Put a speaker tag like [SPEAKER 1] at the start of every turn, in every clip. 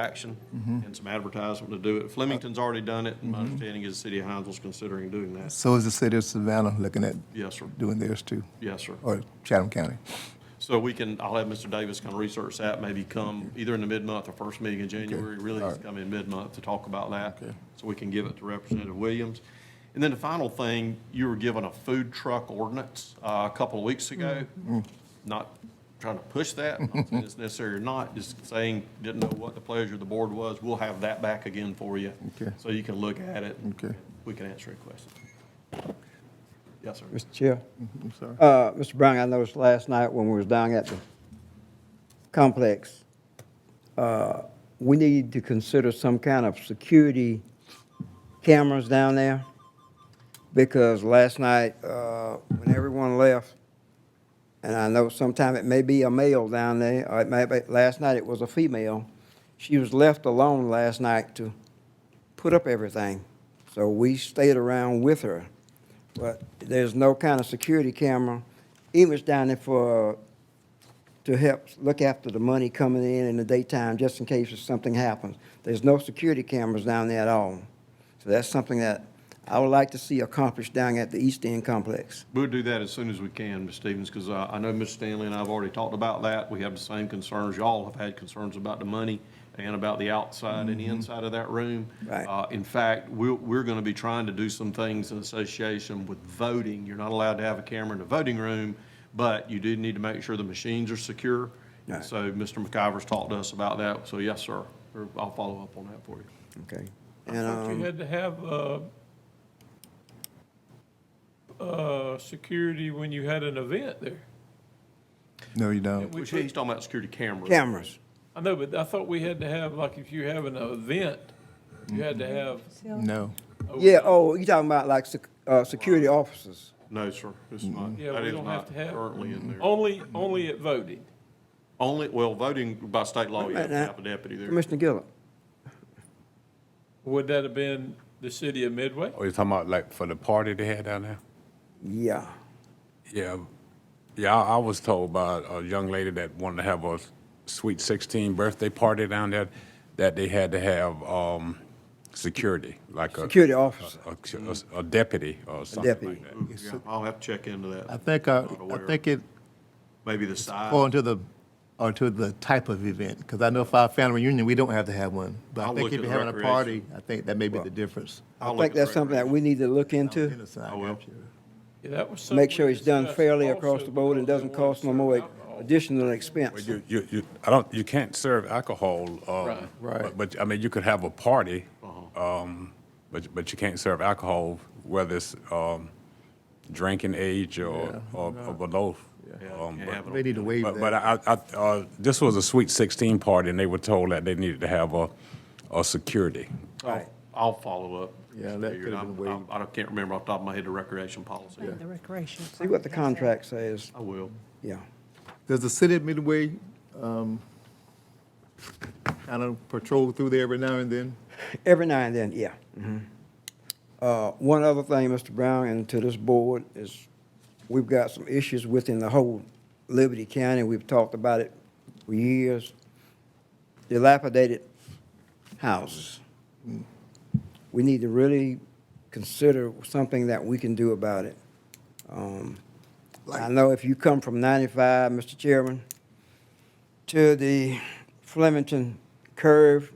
[SPEAKER 1] action and some advertisement to do it. Flemington's already done it, and my understanding is the city of Hinesville's considering doing that.
[SPEAKER 2] So is the city of Savannah looking at
[SPEAKER 1] Yes, sir.
[SPEAKER 2] doing theirs too,
[SPEAKER 1] Yes, sir.
[SPEAKER 2] or Chatham County?
[SPEAKER 1] So we can, I'll have Mr. Davis kind of research that, maybe come either in the mid-month or first meeting in January, really
[SPEAKER 2] all right.
[SPEAKER 1] come in mid-month to talk about that. So we can give it to Representative Williams. And then the final thing, you were given a food truck ordinance uh, a couple of weeks ago.
[SPEAKER 2] Mm-hmm.
[SPEAKER 1] Not trying to push that, not saying it's necessary or not, just saying, didn't know what the pleasure of the board was. We'll have that back again for you.
[SPEAKER 2] Okay.
[SPEAKER 1] So you can look at it.
[SPEAKER 2] Okay.
[SPEAKER 1] We can answer your questions. Yes, sir.
[SPEAKER 3] Mr. Chair.
[SPEAKER 2] I'm sorry.
[SPEAKER 3] Uh, Mr. Brown, I noticed last night when we was down at the complex, uh, we need to consider some kind of security cameras down there. Because last night, uh, when everyone left, and I know sometime it may be a male down there, or it may be, last night it was a female. She was left alone last night to put up everything. So we stayed around with her. But there's no kind of security camera, even it's down there for, to help look after the money coming in in the daytime, just in case if something happens. There's no security cameras down there at all. So that's something that I would like to see accomplished down at the East End Complex.
[SPEAKER 1] We'll do that as soon as we can, Ms. Stevens, because I know Ms. Stanley and I have already talked about that. We have the same concerns. Y'all have had concerns about the money and about the outside and inside of that room.
[SPEAKER 3] Mm-hmm. Right.
[SPEAKER 1] Uh, In fact, we're, we're going to be trying to do some things in association with voting. You're not allowed to have a camera in the voting room, but you do need to make sure the machines are secure.
[SPEAKER 3] Right.
[SPEAKER 1] So Mr. McIver's talked to us about that. So yes, sir, We're- I'll follow up on that for you.
[SPEAKER 3] Okay. And,
[SPEAKER 4] Thought
[SPEAKER 3] um,
[SPEAKER 4] you had to have, uh, uh, security when you had an event there.
[SPEAKER 2] No, you don't.
[SPEAKER 4] We
[SPEAKER 1] Which
[SPEAKER 4] put-
[SPEAKER 1] he's talking about security cameras.
[SPEAKER 3] cameras.
[SPEAKER 4] I know, but I thought we had to have, like, if you have an event, you had to have.
[SPEAKER 2] No.
[SPEAKER 3] Yeah, oh, you talking about like, sec- uh, security officers.
[SPEAKER 1] No, sir, it's not.
[SPEAKER 4] Mm-hmm. Yeah,
[SPEAKER 1] that
[SPEAKER 4] we
[SPEAKER 1] is
[SPEAKER 4] don't have
[SPEAKER 1] not
[SPEAKER 4] to have-
[SPEAKER 1] Currently in there.
[SPEAKER 4] Only, only at voting.
[SPEAKER 1] Only, well, voting by state law, you have to
[SPEAKER 3] Right now.
[SPEAKER 1] have a deputy there.
[SPEAKER 3] Commissioner Gillum.
[SPEAKER 4] Would that have been the city of Midway?
[SPEAKER 5] Oh, you're talking about like for the party they had down there?
[SPEAKER 3] Yeah.
[SPEAKER 5] Yeah, yeah, I I was told by a young lady that wanted to have a sweet sixteen birthday party down there, that they had to have, um, security, like a.
[SPEAKER 3] Security officer.
[SPEAKER 5] a- A a deputy Mm-hmm. or something
[SPEAKER 3] deputy.
[SPEAKER 5] like that.
[SPEAKER 1] Yeah, I'll have to check into that.
[SPEAKER 2] I think, uh,
[SPEAKER 1] Not
[SPEAKER 2] I
[SPEAKER 1] aware.
[SPEAKER 2] think it,
[SPEAKER 1] Maybe the size.
[SPEAKER 2] or into the, or to the type of event, because I know for our family reunion, we don't have to have one. But
[SPEAKER 1] I'll
[SPEAKER 2] I think
[SPEAKER 1] look
[SPEAKER 2] if
[SPEAKER 1] at
[SPEAKER 2] you're
[SPEAKER 1] the
[SPEAKER 2] having a party, I think that may be the difference.
[SPEAKER 1] I'll
[SPEAKER 3] I
[SPEAKER 1] look
[SPEAKER 3] think
[SPEAKER 1] at the
[SPEAKER 3] that's something that we need to look into.
[SPEAKER 2] Genocide,
[SPEAKER 1] I will.
[SPEAKER 2] got you.
[SPEAKER 4] Yeah, that was something
[SPEAKER 3] make sure
[SPEAKER 4] we
[SPEAKER 3] it's done
[SPEAKER 4] discussed
[SPEAKER 3] fairly
[SPEAKER 4] also
[SPEAKER 3] across the board and
[SPEAKER 4] because
[SPEAKER 3] doesn't
[SPEAKER 4] they
[SPEAKER 3] cost no
[SPEAKER 4] wanted
[SPEAKER 3] more
[SPEAKER 4] certain alcohol.
[SPEAKER 3] additional
[SPEAKER 5] Well,
[SPEAKER 3] expense.
[SPEAKER 5] you, you, you, I don't, you can't serve alcohol, uh,
[SPEAKER 4] Right.
[SPEAKER 2] Right.
[SPEAKER 5] but- But, I mean, you could have a party, um, but, but you can't serve alcohol, whether it's, um, drinking age or, or or below.
[SPEAKER 1] Yeah,
[SPEAKER 5] Um,
[SPEAKER 1] you can't
[SPEAKER 5] but-
[SPEAKER 1] have it
[SPEAKER 2] They need to waive
[SPEAKER 5] But, but
[SPEAKER 2] that.
[SPEAKER 5] I, I, uh, this was a sweet sixteen party and they were told that they needed to have a, a security.
[SPEAKER 1] I'll-
[SPEAKER 3] Right.
[SPEAKER 1] I'll follow up.
[SPEAKER 2] Yeah,
[SPEAKER 1] Figure
[SPEAKER 2] that
[SPEAKER 1] it
[SPEAKER 2] could've
[SPEAKER 1] out.
[SPEAKER 2] been waived.
[SPEAKER 1] I I don't- can't remember off the top of my head the recreation policy.
[SPEAKER 6] Maybe the recreation.
[SPEAKER 3] See what the contract says,
[SPEAKER 1] I will.
[SPEAKER 3] yeah.
[SPEAKER 2] Does the city of Midway, um, kind of patrol through there every now and then?
[SPEAKER 3] Every now and then, yeah. Mhm. Uh, One other thing, Mr. Brown, and to this board, is we've got some issues within the whole Liberty County. We've talked about it for years. Dilapidated houses. We need to really consider something that we can do about it. Um, I know if you come from 95, Mr. Chairman, to the Flemington curve,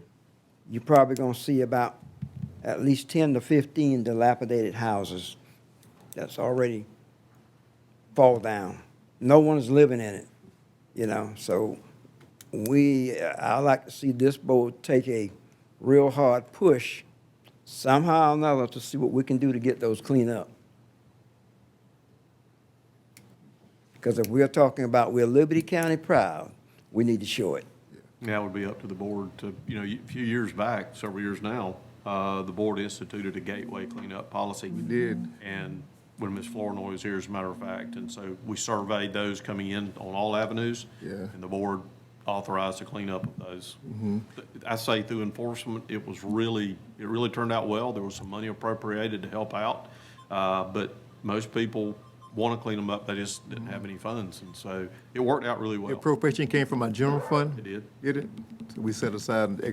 [SPEAKER 3] you're probably gonna see about at least ten to fifteen dilapidated houses that's already fall down. No one's living in it, you know, so we, I like to see this board take a real hard push somehow or another to see what we can do to get those cleaned up. Because if we're talking about we're Liberty County proud, we need to show it.
[SPEAKER 1] That would be up to the board to, you know, a few years back, several years now, uh, the board instituted a gateway cleanup policy. We did. And when Ms. Flournoy was here, as a matter of fact, and so we surveyed those coming in on all avenues.
[SPEAKER 2] Yeah.
[SPEAKER 1] And the board authorized the cleanup of those. I say through enforcement, it was really, it really turned out well. There was some money appropriated to help out. Uh, But most people want to clean them up, they just didn't have any funds, and so it worked out really well.
[SPEAKER 2] Appropriation came from our general fund?
[SPEAKER 1] It did.
[SPEAKER 2] Did it? So we set aside an